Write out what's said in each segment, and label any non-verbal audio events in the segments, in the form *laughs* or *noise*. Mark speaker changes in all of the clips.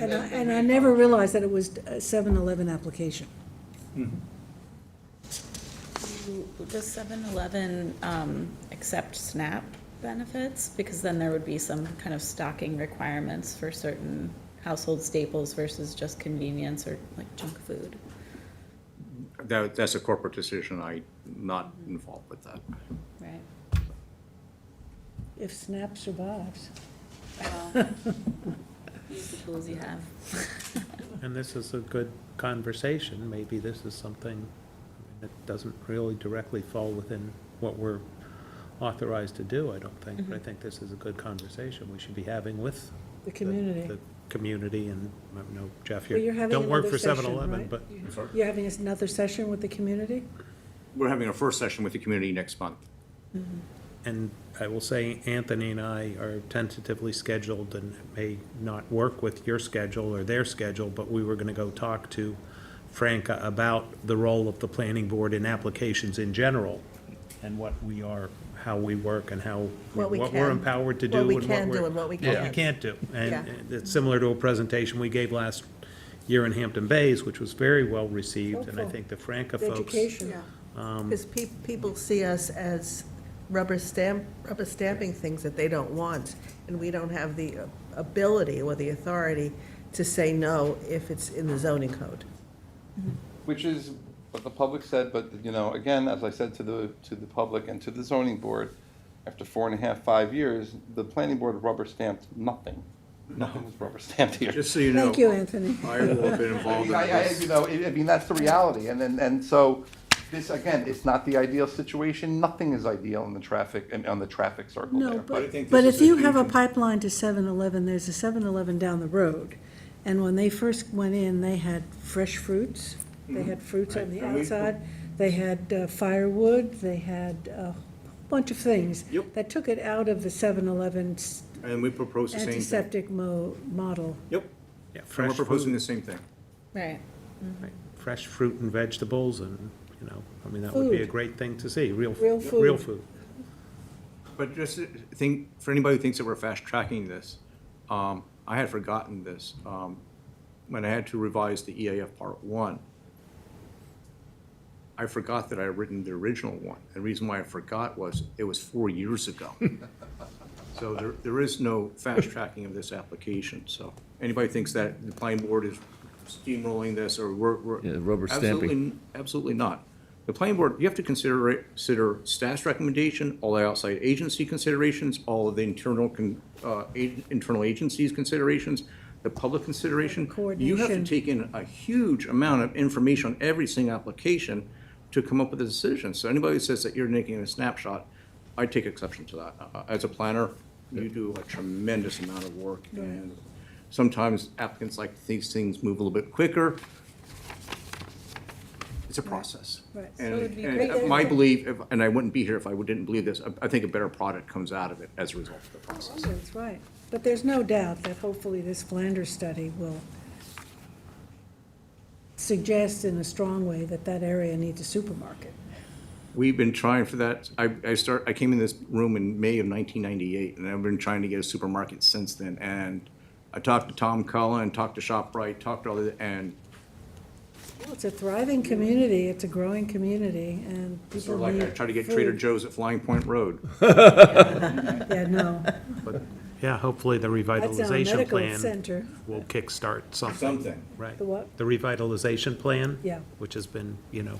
Speaker 1: And I, and I never realized that it was a 7-Eleven application.
Speaker 2: Does 7-Eleven um, accept SNAP benefits? Because then there would be some kind of stocking requirements for certain household staples versus just convenience or like junk food.
Speaker 3: That, that's a corporate decision, I not involved with that.
Speaker 2: *laughs* Right.
Speaker 1: If SNAP survives.
Speaker 2: Use the tools you have.
Speaker 4: And this is a good conversation, maybe this is something that doesn't really directly fall within what we're authorized to do, I don't think, but
Speaker 1: Mm-hmm.
Speaker 4: I think this is a good conversation we should be having with.
Speaker 1: The community.
Speaker 4: The community, and, I know, Jeff,
Speaker 1: Well, you're
Speaker 4: you
Speaker 1: having
Speaker 4: don't work
Speaker 1: another
Speaker 4: for
Speaker 1: session,
Speaker 4: 7-Eleven,
Speaker 1: right?
Speaker 4: but,
Speaker 1: You're having another session with the community?
Speaker 3: We're having our first session with the community next month.
Speaker 4: and I will say, Anthony and I are tentatively scheduled, and it may not work with your schedule or their schedule, but we were gonna go talk to Franca about the role of the planning board in applications in general, and what we are, how we work, and how,
Speaker 5: What we
Speaker 4: what we're
Speaker 5: can-
Speaker 4: empowered to do.
Speaker 5: what we
Speaker 4: and
Speaker 5: can
Speaker 4: we're-
Speaker 5: do and what we can't.
Speaker 4: can't do.
Speaker 5: Yeah.
Speaker 4: And it's similar to a presentation we gave last year in Hampton Bays, which was very well received, and I
Speaker 1: Helpful.
Speaker 4: think the Franca
Speaker 1: The
Speaker 4: folks.
Speaker 1: education?
Speaker 4: Um,
Speaker 5: Because people see us as rubber stamp, rubber stamping things that they don't want, and we don't have the uh, ability or the authority to say no if it's in the zoning code.
Speaker 6: Which is what the public said, but, you know, again, as I said to the, to the public and to the zoning board, after four and a half, five years, the planning board rubber stamped nothing. Nothing was rubber stamped here.
Speaker 3: Just so you know.
Speaker 1: Thank you, Anthony.
Speaker 3: I will have been
Speaker 6: I,
Speaker 3: involved in
Speaker 6: I, I- you
Speaker 3: this.
Speaker 6: know, I I mean, that's the reality, and then, and so, this, again, it's not the ideal situation, nothing is ideal in the traffic, and on the traffic circle there.
Speaker 1: No,
Speaker 3: But I
Speaker 1: but,
Speaker 3: think
Speaker 1: but
Speaker 3: this
Speaker 1: if
Speaker 3: is a
Speaker 1: you have a
Speaker 3: huge-
Speaker 1: pipeline to 7-Eleven, there's a 7-Eleven down the road. And when they first went in, they had fresh fruits, they had fruits on the
Speaker 3: And we-
Speaker 1: outside, they had uh, firewood, they had a bunch of things.
Speaker 3: Yep.
Speaker 1: That took it out of the 7-Eleven 's
Speaker 3: And we propose the same thing.
Speaker 1: antiseptic mo, model.
Speaker 3: Yep,
Speaker 4: Yeah,
Speaker 3: and we're
Speaker 4: fresh
Speaker 3: proposing the
Speaker 4: food,
Speaker 3: same thing.
Speaker 2: Right.
Speaker 4: right, fresh fruit and vegetables, and, you know, I mean, that would be a
Speaker 1: Food.
Speaker 4: great thing to see, real. f-
Speaker 1: Real
Speaker 4: Real
Speaker 1: food.
Speaker 4: food.
Speaker 3: But just uh, think, for anybody who thinks that we're fast tracking this, um, I had forgotten this. Um, When I had to revise the EAF Part One, I forgot that I had written the original one. The reason why I forgot was it was four years ago. So there, there is no fast tracking of this application, so anybody thinks that the planning board is steamrolling this or we're, we're.
Speaker 7: Yeah, rubber
Speaker 3: absolutely-
Speaker 7: stamping.
Speaker 3: Absolutely not. The planning board, you have to consider, it- consider staff's recommendation, all the outside agency considerations, all of the internal, con- uh, a- internal agencies considerations, the public consideration. You have to
Speaker 1: Coordination.
Speaker 3: take in a huge amount of information on every single application to come up with a decision. So anybody who says that you're making a snapshot, I take exception to that. Uh, As a planner, you do a tremendous amount of work, and sometimes applicants like these things move a little bit quicker. It's a process.
Speaker 1: Right. So it would
Speaker 3: And
Speaker 1: be
Speaker 3: and
Speaker 1: great-
Speaker 3: my belief, if- and I wouldn't be here if I didn't believe this, I- I think a better product comes out of it as a result of the process.
Speaker 1: Oh, That's right. But there's no doubt that hopefully this Flanders study will suggest in a strong way that that area needs a supermarket.
Speaker 3: We've been trying for that. I, I start, I came in this room in May of nineteen ninety-eight, and I've been trying to get a supermarket since then. And I talked to Tom Cullen, talked to ShopRite, talked to all the, and
Speaker 1: Well, It's a thriving community, it's a growing community, and people
Speaker 3: sort of like I
Speaker 1: need
Speaker 3: tried to get Trader
Speaker 1: food.
Speaker 3: Joe's at Flying Point Road.
Speaker 1: Yeah,
Speaker 3: *laughs*
Speaker 1: no,
Speaker 4: Yeah, hopefully the
Speaker 1: that's our
Speaker 4: revitalization
Speaker 1: medical
Speaker 4: plan
Speaker 1: center,
Speaker 4: will kickstart something,
Speaker 3: Something.
Speaker 4: right?
Speaker 1: the what?
Speaker 4: The revitalization plan?
Speaker 1: Yeah.
Speaker 4: Which has been, you know,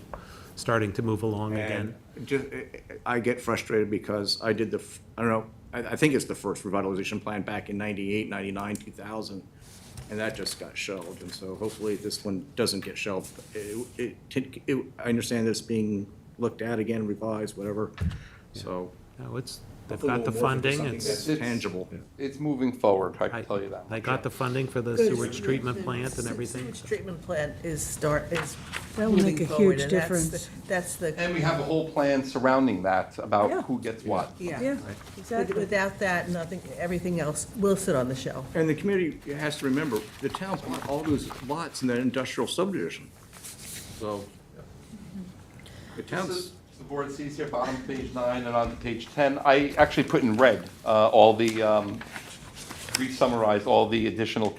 Speaker 4: starting to move along
Speaker 3: And
Speaker 4: again.
Speaker 3: just, eh, I get frustrated because I did the, f- I don't know, I, I think it's the first revitalization plan back in ninety-eight, ninety-nine, two thousand. And that just got shelved, and so hopefully this one doesn't get shelved. It, it- it, it, I understand this being looked at again, revised, whatever, so.
Speaker 4: No, it's, they've
Speaker 3: hopefully
Speaker 4: got the
Speaker 3: we'll morph into
Speaker 4: funding,
Speaker 3: something
Speaker 4: it's.
Speaker 3: that's Tangible.
Speaker 6: It's moving forward, I
Speaker 4: I-
Speaker 6: can tell you that.
Speaker 4: They
Speaker 6: much.
Speaker 4: got the funding for the
Speaker 1: Good.
Speaker 4: sewage treatment plant and
Speaker 5: Se-
Speaker 4: everything.
Speaker 5: Sewage treatment plant is start, is
Speaker 1: That will make
Speaker 5: moving
Speaker 1: a
Speaker 5: forward,
Speaker 1: huge
Speaker 5: and that's the-
Speaker 1: difference.
Speaker 5: That's the,
Speaker 6: And we have a whole plan surrounding that,
Speaker 1: Yeah.
Speaker 6: about who gets what.
Speaker 1: Yeah,
Speaker 5: yeah. With-
Speaker 1: exactly.
Speaker 5: Without that, nothing, everything else will sit on the shelf.
Speaker 3: And the community has to remember, the town bought all those lots in that industrial subdivision, so. The
Speaker 6: This
Speaker 3: town's.
Speaker 6: is The board sees here, bottom of page nine and on page 10, I actually put in red uh, all the, um, re-summarized all the additional